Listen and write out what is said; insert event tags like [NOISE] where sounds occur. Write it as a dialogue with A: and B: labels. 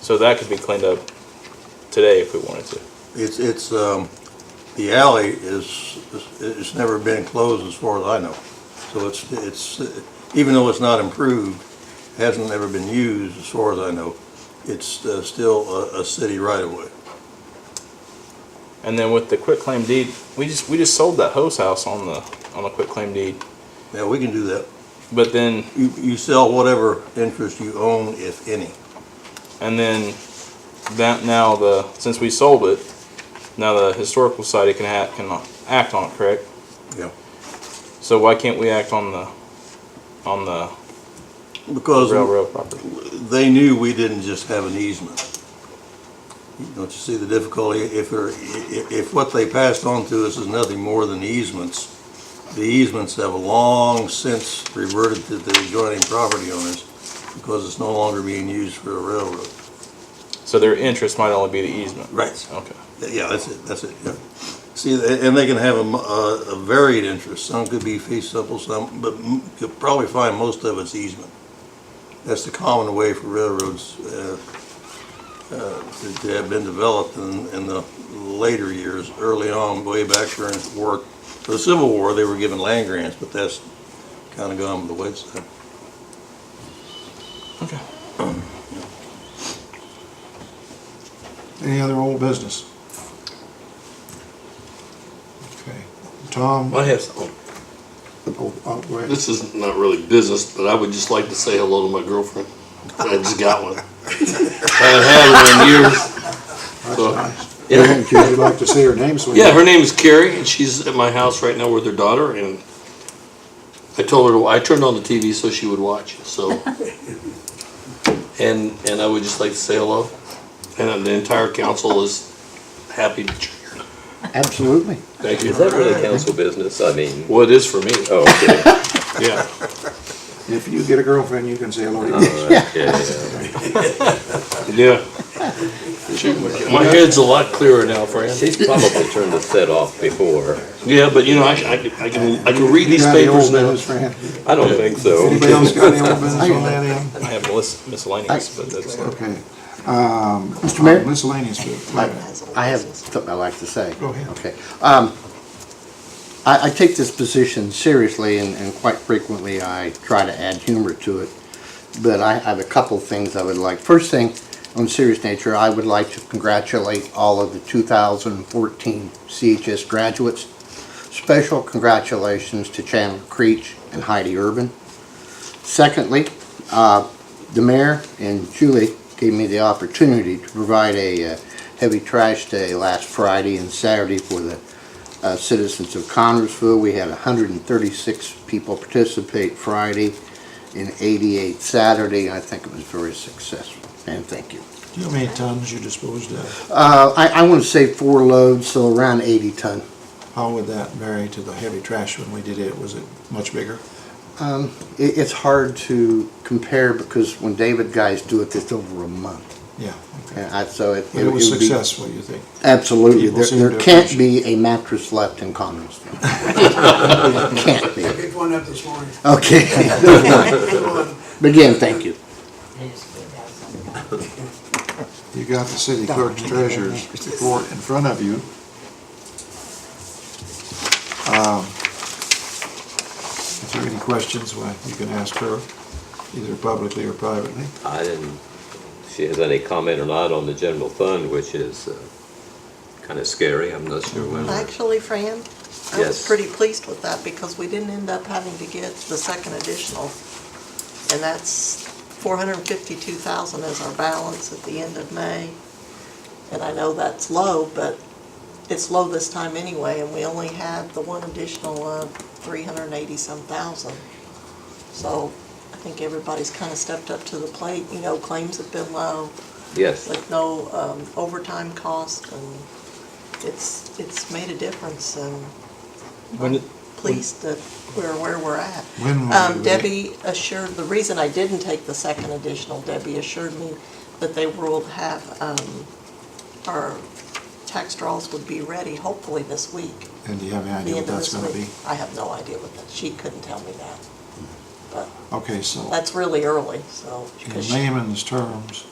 A: So that could be cleaned up today if we wanted to.
B: It's, it's, um, the alley is, is- it's never been closed as far as I know. So it's, it's, uh, even though it's not improved, hasn't ever been used as far as I know, it's uh, still a, a city right of way.
A: And then with the quick claim deed, we just we just sold that hose house on the on the quick claim deed.
B: Now, we can do that.
A: But then
B: You, you sell whatever interest you own, if any.
A: and then that now the since we sold it, now the historical society can act can act on it, correct?
B: Yeah.
A: So why can't we act on the on the
B: Because
A: railroad property?
B: they knew we didn't just have an easement. Don't you see the difficulty? If they're, if, if what they passed on to us is nothing more than easements, the easements have long since reverted to the adjoining property owners because it's no longer being used for a railroad.
A: So their interest might only be the easement.
B: Right.
A: Okay.
B: Yeah, that's it, that's it, yeah. See, a- and they can have a, m- a- a varied interest, some could be fee simple, some, but m- you'll probably find most of it's easement. That's the common way for railroads, uh, uh, to to have been developed in, in the later years, early on, way back during the war. For the Civil War, they were given land grants, but that's kinda gone by the wayside.
A: Okay.
C: Any other old business? Okay, Tom,
D: I have something.
C: oh, oh, go ahead.
D: This is not really business, but I would just like to say hello to my girlfriend. I just got [LAUGHS] one. I haven't had one in years.
C: That's
D: so-
C: nice.
D: Yeah.
C: You'd like to see her name, so we
D: Yeah, her name is Carrie, and she's at my house right now with her daughter, and I told her, to I turned on the TV so she would watch, so. And, and I would just like to say hello, and the entire council is happy to cheer.
C: Absolutely.
D: Thank
E: Is that really council business? I mean,
D: Well, it is for me,
E: oh, okay.
D: yeah.
C: If you get a girlfriend, you can say hello
D: Uh,
C: to her.
E: All right, yeah, yeah.
D: Yeah. My head's a lot clearer now, Fran.
E: She's probably turned the set off before.
D: Yeah, but you know, I, I can, I can, I can read these
C: Got any
D: papers
C: old
D: now.
C: business, Fran?
E: I don't think so.
C: Anybody else got any old business on that end?
A: I have mis- miscellaneous, but that's not.
C: Okay.
F: Mr. Mayor,
C: Miscellaneous business.
F: I have something I'd like to say.
C: Go ahead.
F: Okay. Um, I, I take this position seriously and, and quite frequently I try to add humor to it. But I have a couple things I would like. First thing, on serious nature, I would like to congratulate all of the 2014 CHS graduates. Special congratulations to Chandler Creech and Heidi Urban. Secondly, uh, the mayor and Julie gave me the opportunity to provide a uh, heavy trash day last Friday and Saturday for the uh, citizens of Connersville. We had 136 people participate Friday and 88 Saturday. I think it was very successful, and thank you.
C: Do you know how many tons you disposed of?
F: Uh, I, I want to say four loads, so around 80 ton.
C: How would that vary to the heavy trash when we did it? Was it much bigger?
F: Um, It, it's hard to compare because when David guys do it, it's over a month.
C: Yeah, okay.
F: And I, so it.
C: But it was
F: would be-
C: successful, you think?
F: Absolutely.
C: People
F: There,
C: seem
F: there
C: to
F: can't
C: appreciate
F: be a mattress left in
C: [LAUGHS]
F: Connersville. Can't be.
G: picked one up this morning.
F: Okay. But [LAUGHS] again, thank you.
C: You got the city clerk's treasurer's report in front of you. Um, If there are any questions, well, you can ask her, either publicly or privately.
E: I didn't, if she has any comment or not on the general fund, which is kind of scary. I'm not sure when.
H: Actually, Fran,
E: Yes.
H: I was pretty pleased with that because we didn't end up having to get the second additional. And that's four hundred and fifty-two thousand is our balance at the end of May. And I know that's low, but it's low this time anyway, and we only had the one additional of three hundred and eighty-some thousand. So I think everybody's kind of stepped up to the plate, you know, claims have been low,
E: Yes,
H: with no um, overtime cost, and it's, it's made a difference, and
A: When did-
H: pleased that we're where we're at.
C: When will
H: Um,
C: we-
H: Debbie assured, the reason I didn't take the second additional, Debbie assured me that they will have, um, our tax draws would be ready hopefully this week,
C: And do you have any
H: the
C: idea what
H: end of
C: that's
H: this
C: gonna be?
H: week. I have no idea what that, she couldn't tell me that.
C: Okay, so
H: That's really early, so,
C: in
H: because she
C: layman's terms,